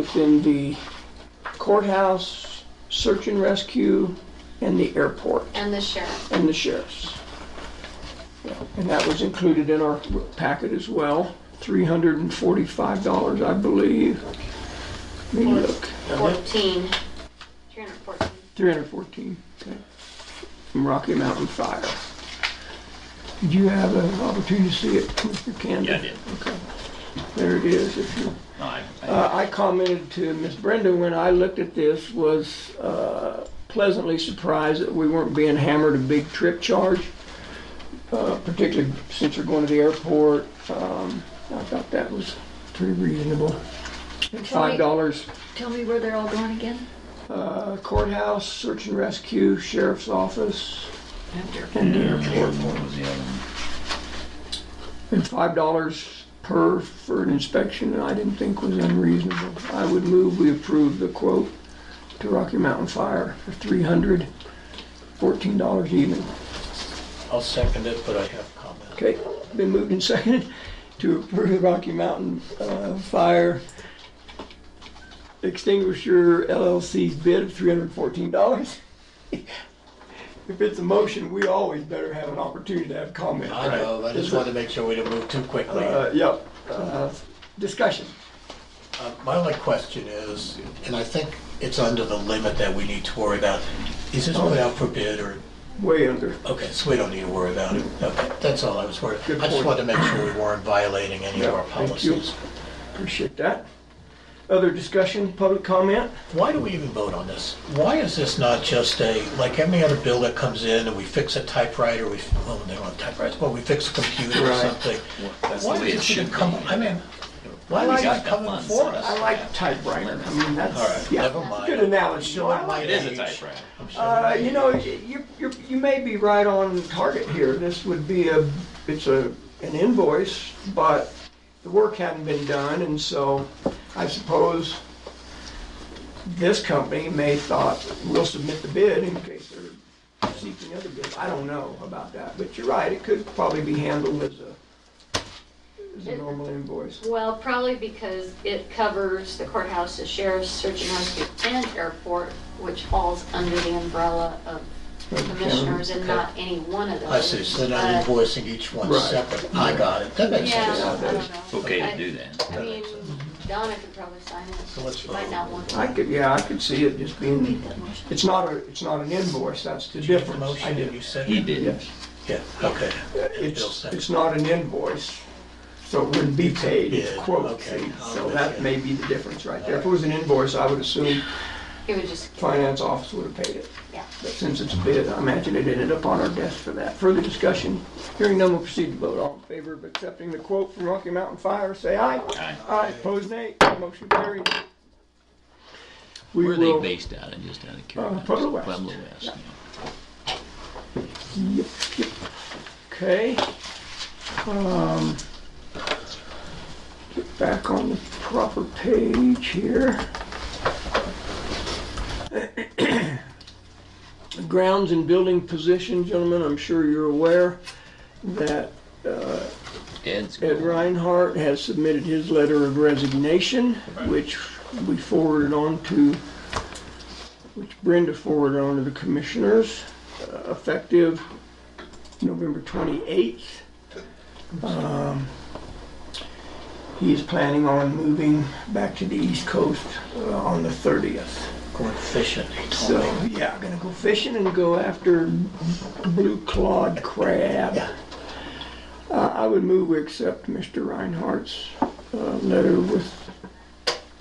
within the courthouse, search and rescue, and the airport, and the sheriff. and the sheriff's. Yeah, And that was included in our packet as well, three hundred and forty-five dollars, I believe. Let me look, Fourteen. Three hundred fourteen. three hundred fourteen, okay. From Rocky Mountain Fire. Did you have an opportunity to see it, Mr. Candy? Yeah, I did. Okay, there it is, if you No, I- I- Uh, I commented to Miss Brenda when I looked at this, was uh, pleasantly surprised that we weren't being hammered a big trip charge, uh, particularly since we're going to the airport. Um, I thought that was pretty reasonable. And Five dollars Tell me where they're all going again? uh, courthouse, search and rescue, sheriff's office, and the airport. What was the other one? And five dollars per for an inspection, and I didn't think was unreasonable. I would move we approve the quote to Rocky Mountain Fire for three hundred fourteen dollars even. I'll second it, but I have a comment. Okay, been moved and seconded to approve Rocky Mountain uh, Fire Extinguisher LLC's bid of three hundred fourteen dollars. If it's a motion, we always better have an opportunity to have comment, I right? know, I just wanted to make sure we didn't move too quickly. Uh, yep, uh, discussion. Uh, My only question is, and I think it's under the limit that we need to worry about, is this put out for bid or, Way under. okay, so we don't need to worry about it. Okay, that's all I was worried. Good I just point. wanted to make sure we weren't violating any of our Yeah, thank you. policies. Appreciate that. Other discussion, public comment? Why do we even vote on this? Why is this not just a, like any other bill that comes in and we fix a typewriter, we, well, they don't have typewriters, but we fix a computer or Right. something? That's the Why way it does it should even come, be. I mean, why Well, is I it got coming one, so for us? I like typewriter. I mean, All right, that's, never yeah, mind. good analogy. Sure, I like my It is a age. typewriter. I'm sure Uh, my you age. know, you, you, you may be right on target here. This would be a, it's a, an invoice, but the work hadn't been done, and so I suppose this company may thought, we'll submit the bid in case they're seeking other bids. I don't know about that, but you're right, it could probably be handled as a, as a normal invoice. Well, probably because it covers the courthouse, the sheriff's, search and rescue, and airport, which falls under the umbrella of commissioners and not any one of those. I see, so they're But- not invoicing each one Right. separate. I got it, that makes Yeah, sense. I don't know. Okay I- to do that. I mean, Donna could probably sign it. So let's vote. Might not want to. I could, yeah, I could see it just being, that motion. it's not a, it's not an invoice, that's the Did you get the difference. I motion, did did, you say? He did. yes. Yeah, okay. And Bill It's, seconded. it's not an invoice, so it wouldn't be paid, it's Yeah, quote okay. fee. I'll So bet that you. may be the difference right there. If it was an invoice, I would assume It would just, finance office would have paid it. yeah. But since it's a bid, I imagine it ended up on our desk for that. Further discussion, hearing none, we'll proceed to vote. All in favor of accepting the quote from Rocky Mountain Fire, say aye. Aye. Aye, opposed nay, motion carried. We Where are they will- based out of, just out of Uh, curiosity? Pueblo West. Pueblo West, Yeah. yeah. Yep, yep. Okay. Um, Get back on the proper page here. Grounds and building position, gentlemen, I'm sure you're aware that Ed's. Ed Reinhardt has submitted his letter of resignation, which we forwarded on to, which Brenda forwarded on to the commissioners, uh, effective November 28th. Um, He is planning on moving back to the East Coast uh, on the 30th. Going fishing, he So, told me. yeah, gonna go fishing and go after blue clawed crab. Uh, I would move we accept Mr. Reinhardt's uh, letter with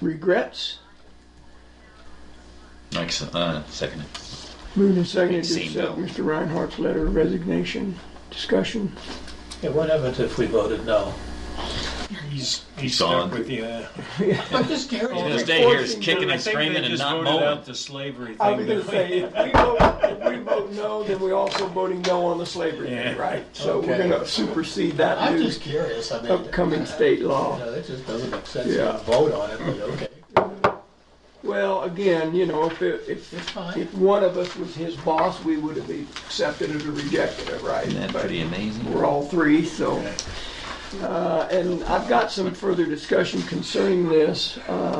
regrets. Like, so- uh, second. it. Moved and seconded to Same accept bill. Mr. Reinhardt's letter of resignation. Discussion. Yeah, what happens if we voted no? He's, He's he's stuck on. with you. uh, I'm just He's gonna curious. stay here forcing kicking I and think they screaming and just not voted mowing. out the slavery I was gonna thing. didn't say, they? if we vote, if we vote no, then we also voting no on the slavery Yeah. thing, right? So we're Okay. gonna supersede that I'm new just curious, I mean. upcoming state law. You know, that just doesn't make sense to Yeah. vote on it, but okay. Well, again, you know, if, it- if, It's fine. if one of us was his boss, we would have accepted it or rejected it, right? Isn't that But pretty amazing? We're all three, so. Uh, and I've got some further discussion concerning this. Uh,